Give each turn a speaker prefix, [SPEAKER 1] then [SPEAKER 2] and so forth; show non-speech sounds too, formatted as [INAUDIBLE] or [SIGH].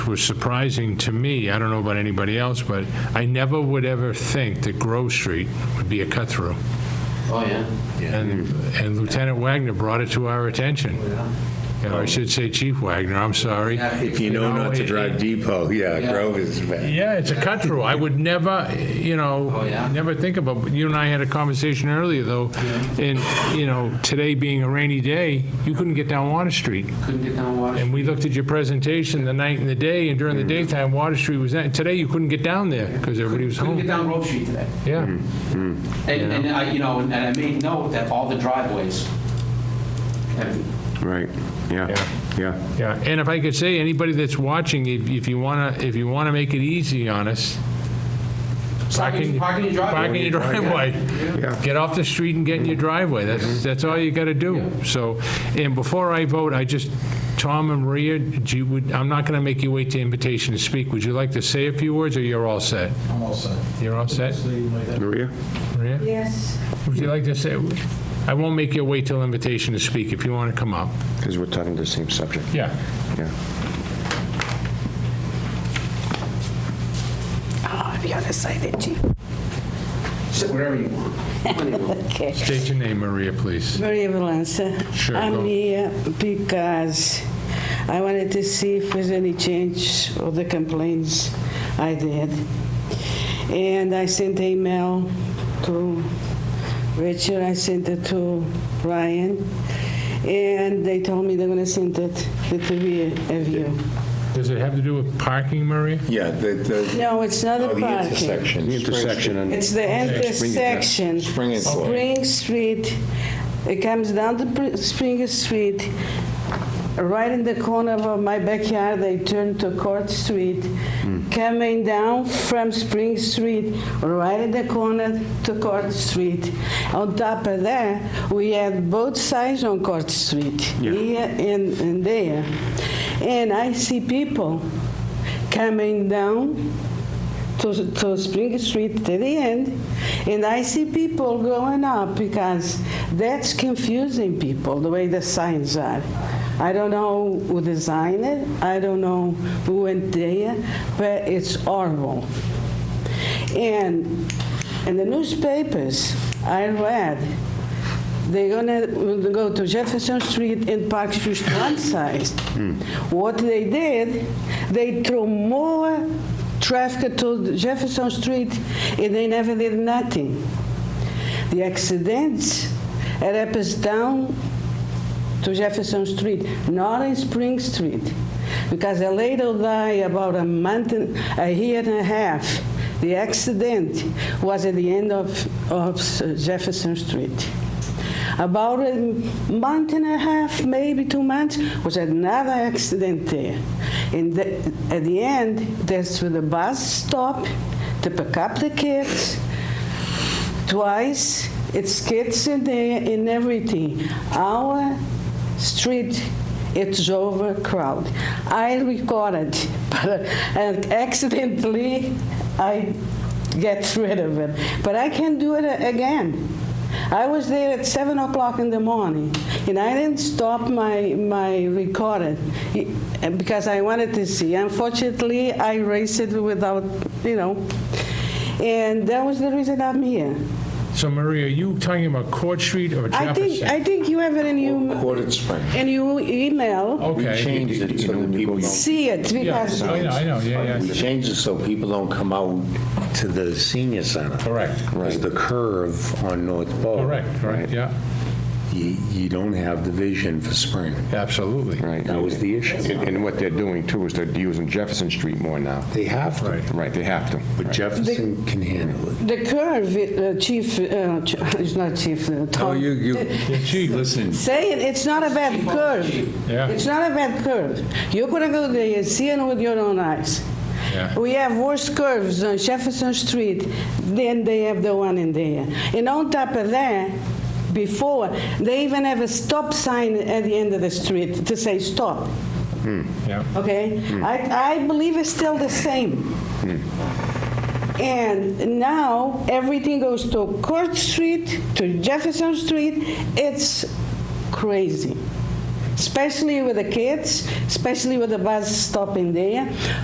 [SPEAKER 1] was surprising to me, I don't know about anybody else, but I never would ever think that Grove Street would be a cut-through.
[SPEAKER 2] Oh, yeah.
[SPEAKER 1] And and Lieutenant Wagner brought it to our attention.
[SPEAKER 2] Oh.
[SPEAKER 1] Or I should say Chief Wagner, I'm sorry.
[SPEAKER 3] If you know not to
[SPEAKER 1] it-
[SPEAKER 3] drive depot, yeah, Grove is bad.
[SPEAKER 1] Yeah, it's a cut through. I would never, you know,
[SPEAKER 2] Oh, yeah.
[SPEAKER 1] never think about, but you and I had a conversation earlier, though, and, you know, today being a rainy day, you couldn't get down Water Street.
[SPEAKER 2] Couldn't get down Water
[SPEAKER 1] And we looked at your presentation the night and the day, and during the
[SPEAKER 2] Mm.
[SPEAKER 1] daytime, Water Street was, that- today you couldn't get down there because everybody was
[SPEAKER 2] Couldn't Mm. get
[SPEAKER 1] home.
[SPEAKER 2] down Grove Street today.
[SPEAKER 1] Yeah.
[SPEAKER 2] And, and I, you know, and I made note that all the driveways have,
[SPEAKER 4] Right,
[SPEAKER 1] Yeah.
[SPEAKER 4] yeah, yeah.
[SPEAKER 1] Yeah, and if I could say, anybody that's watching, if if you want to, if you want to make it easy on us.
[SPEAKER 2] Parking- parking your driveway.
[SPEAKER 1] Parking your driveway.
[SPEAKER 4] Yeah. Mm-hmm.
[SPEAKER 1] Get off the street and get in your driveway. That's, that's all you got to do. So, and before I vote, I just, Tom and Maria, do you, would- I'm not going to make you wait to invitation to speak. Would you like to say a few words, or you're all set?
[SPEAKER 5] I'm all set.
[SPEAKER 1] You're all set,
[SPEAKER 4] Maria?
[SPEAKER 1] Maria?
[SPEAKER 6] Yes.
[SPEAKER 1] Would you like to say, I won't make you wait till invitation to speak if you want to come up.
[SPEAKER 4] Because we're talking the same subject,
[SPEAKER 1] Yeah.
[SPEAKER 4] yeah.
[SPEAKER 6] I'll be on the side of you.
[SPEAKER 2] sit wherever you want.
[SPEAKER 6] Okay.
[SPEAKER 1] State your name, Maria, please.
[SPEAKER 6] Maria Valença.
[SPEAKER 1] Sure, go.
[SPEAKER 6] I'm here because I wanted to see if there's any change of the complaints I did. And I sent email to Richard, I sent it to Ryan, and they told me they're gonna send it to the three of you.
[SPEAKER 1] Does it have to do with parking, Maria?
[SPEAKER 3] Yeah, the, the,
[SPEAKER 6] No, it's not
[SPEAKER 3] oh,
[SPEAKER 6] a
[SPEAKER 3] the
[SPEAKER 6] parking.
[SPEAKER 3] intersection.
[SPEAKER 4] The intersection and,
[SPEAKER 6] It's the intersection.
[SPEAKER 3] Spring and Floyd.
[SPEAKER 6] Spring Street. It comes down to Pr- Spring Street, right in the corner of my backyard, I turn to Court Street. Coming down from Spring Street, right in the corner to Court Street. On top of that, we had both sides on Court Street, here and and there. And I see people coming down to, to Spring Street to the end, and I see people going up because that's confusing people the way the signs are. I don't know who designed it, I don't know who went there, but it's horrible. And in the newspapers, I read they're gonna will go to Jefferson Street and Park Street to one side. What they did, they threw more traffic to Jefferson Street and they never did nothing. The accidents it happens down to Jefferson Street, not in Spring Street. Because a lady died about a month, and- a year and a half. The accident was at the end of, of Jefferson Street. About a month and a half, maybe two months, was another accident there. And the, at the end, that's where the bus stopped to pick up the kids twice. It's kids in there and everything. Our street, it's overcrowded. I recorded, [LAUGHS] but and accidentally I get rid of it. But I can do it again. I was there at seven o'clock in the morning, and I didn't stop my my recording eh, because I wanted to see. Unfortunately, I raced it without, you know. And that was the reason I'm here.
[SPEAKER 1] So Maria, are you talking about Court Street or
[SPEAKER 6] I think,
[SPEAKER 1] Jefferson?
[SPEAKER 6] I think you have it in your,
[SPEAKER 3] Quartered Spring.
[SPEAKER 6] in your email.
[SPEAKER 3] We
[SPEAKER 1] Okay.
[SPEAKER 3] changed it so that people don't.
[SPEAKER 6] See it
[SPEAKER 1] Yeah,
[SPEAKER 6] because,
[SPEAKER 1] I know, I know, yeah,
[SPEAKER 3] We
[SPEAKER 1] yeah.
[SPEAKER 3] changed it so people don't come out to the senior center.
[SPEAKER 1] Correct.
[SPEAKER 3] Because the curve on North Bow.
[SPEAKER 1] Correct, right, yeah,
[SPEAKER 3] You, you don't have the vision for spring.
[SPEAKER 1] absolutely.
[SPEAKER 4] right.
[SPEAKER 3] That was the issue.
[SPEAKER 4] And and what they're doing too is they're using Jefferson Street more now.
[SPEAKER 3] They have to,
[SPEAKER 4] Right, they have to.
[SPEAKER 3] but Jefferson can handle it.
[SPEAKER 6] the curve, uh, chief, uh, ch- [LAUGHS] it's not chief, uh, Tom.
[SPEAKER 3] Oh, you, listen.
[SPEAKER 6] Say it, it's not a bad curve.
[SPEAKER 1] Yeah.
[SPEAKER 6] It's not a bad curve. You're gonna go there and see it with your own eyes.
[SPEAKER 1] Yeah.
[SPEAKER 6] We have worse curves on Jefferson Street than they have the one in there. And on top of that, before, they even have a stop sign at the end of the street to say stop.
[SPEAKER 1] Yeah.
[SPEAKER 6] Okay? I, I believe it's still the same. And now everything goes to Court Street, to Jefferson Street. It's crazy. especially with the kids, especially with the bus stopping there.